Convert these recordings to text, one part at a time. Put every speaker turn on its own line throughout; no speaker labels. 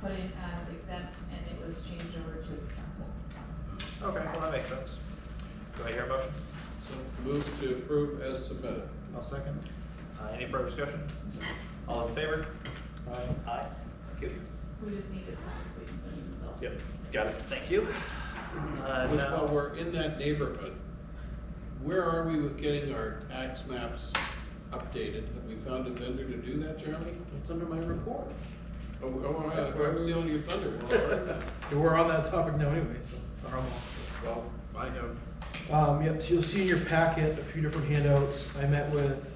put in as exempt and it was changed over to council.
Okay, well, that makes sense. Do I hear a motion?
So move to approve as submitted.
I'll second.
Uh, any further discussion? All in favor?
Aye.
Aye. Thank you.
We just need to sign so we can send it to the bill.
Yep, got it, thank you. Uh,
Which,
now-
while we're in that neighborhood, where are we with getting our tax maps updated? Have we found a vendor to do that, Jeremy?
It's under my report.
Oh, oh, I- I'm stealing your thunder.
We're on that topic now anyway, so. or I'm off.
Well, I have,
Um, yep, so you'll see in your packet a few different handouts. I met with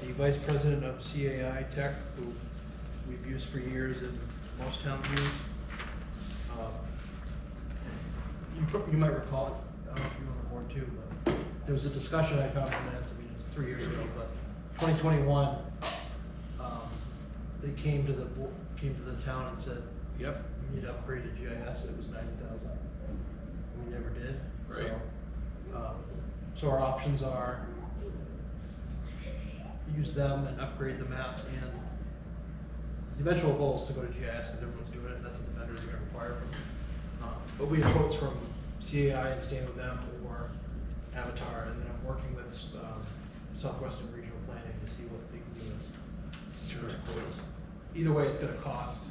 the vice president of CAI Tech, who we've used for years and most towns use. Um, You, pro- you might recall, it. I don't know if you were on the board too, but there was a discussion I found in the minutes, I mean, it was three years ago, but twenty twenty-one, um, they came to the, bo- came to the town and said,
yep,
we need to upgrade to GIS, it was ninety thousand. We never did,
Right.
so. um, So our options are use them and upgrade the maps and the eventual goal is to go to GIS because everyone's doing it, that's what the vendors are gonna require from. you. Um, But we have quotes from CAI and staying with them or Avatar, and then I'm working with, um, Southwestern Regional Planning to see what they can do as. quotes. Either way, it's gonna cost.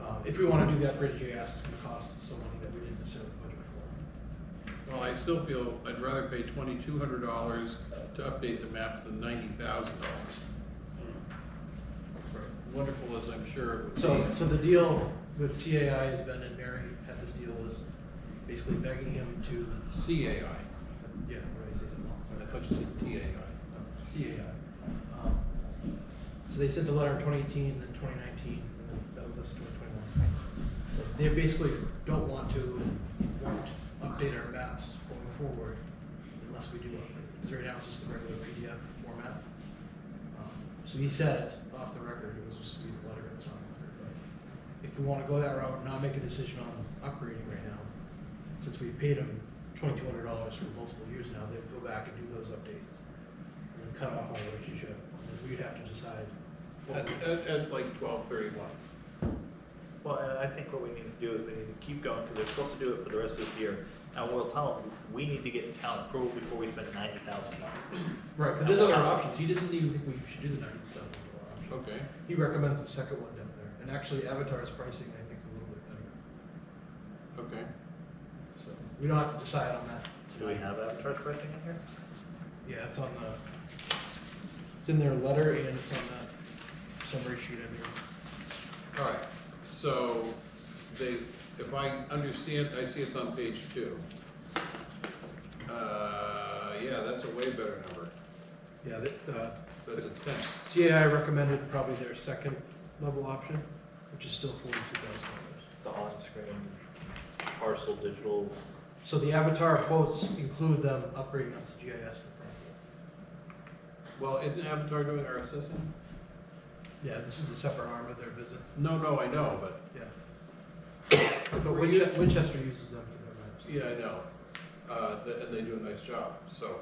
Um, if we wanna do the upgraded GIS, it's gonna cost some money that we didn't necessarily budget for.
well, I still feel I'd rather pay twenty-two hundred dollars to update the maps than ninety thousand dollars. Wonderful as I'm sure it would be.
So, so the deal with CAI has been, and Mary had this deal, was basically begging him to,
CAI.
yeah, what did I say, something else?
I thought you said TAI.
CAI. Um, So they sent a letter in twenty eighteen, then twenty nineteen, and then that was twenty twenty-one. So they basically don't want to, and won't update our maps going forward unless we do upgrade. Because right now it's just the regular PDF format. Um, So he said, off the record, it was just be the letter, it's not on the record, but if we wanna go that route, and not make a decision on upgrading right now, since we've paid them twenty-two hundred dollars for multiple years now, they'd go back and do those updates and then cut off our relationship. And then We'd have to decide.
At, at, at like twelve thirty-one.
Well, and I think what we need to do is we need to keep going, because they're supposed to do it for the rest of this year. And we'll tell them, we need to get town approval before we spend ninety thousand dollars.
Right, but there's other options. He doesn't even think we should do the ninety thousand dollar option.
Okay,
He recommends the second one down there. And actually Avatar's pricing, I think, is a little bit better.
okay.
So we don't have to decide on that.
Do we have Avatar's pricing in here?
Yeah, it's on the, it's in their letter and it's on that summary sheet I made.
All right, so they, if I understand, I see it's on page two. Uh, yeah, that's a way better number.
Yeah, that, uh,
That's a tenth.
CAI recommended probably their second level option, which is still forty-two thousand dollars.
The on-screen parcel digital.
So the Avatar quotes include them upgrading us to GIS in the process.
Well, isn't Avatar doing our assessing?
Yeah, this is a separate arm of their business,
No, no, I know, but,
yeah.
For
But
you-
Winchester, Winchester uses them for their maps.
yeah, I know. Uh, th- and they do a nice job, so.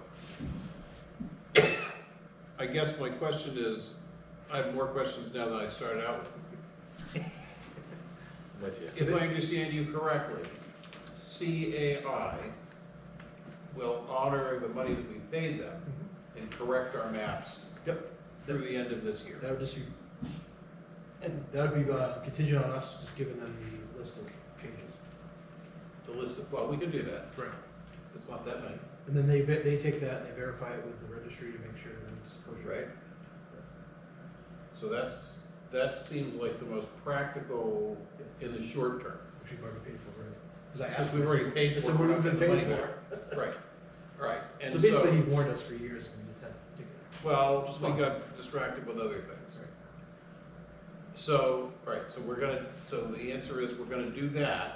I guess my question is, I have more questions now than I started out with.
With you.
If I understand you correctly, CAI will honor the money that we paid them
Mm-hmm.
and correct our maps
Yep.
through the end of this year.
That would just be, and that would be uh, contingent on us just giving them the list of changes.
The list of, well, we can do that,
Right.
it's not that many,
And then they, ve- they take that and they verify it with the registry to make sure that it's kosher.
right? So that's, that seems like the most practical in the short term,
Which we've already paid for, right? Because I
since
asked
we've already
him,
paid
I
for
said,
it,
"What
we're
have
not
we
getting
been
the money
paying
back.
for?
Right, right,
So
and
basically, he
so,
warned us for years and we just had to take it.
well, we got distracted with other things. So, right, so we're gonna, so the answer is we're gonna do that,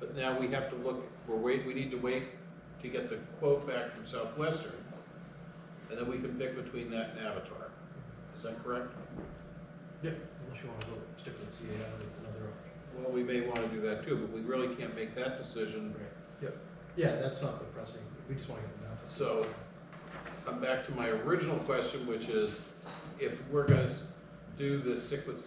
but now we have to look, we're wait, we need to wait to get the quote back from Southwestern, and then we can pick between that and Avatar. Is that correct?
Yep. Unless you wanna go stick with CAI with another option.
Well, we may wanna do that too, but we really can't make that decision.
Yep, yeah, that's not the pressing, we just wanna get them out.
So, I'm back to my original question, which is, if we're gonna s- do this, stick with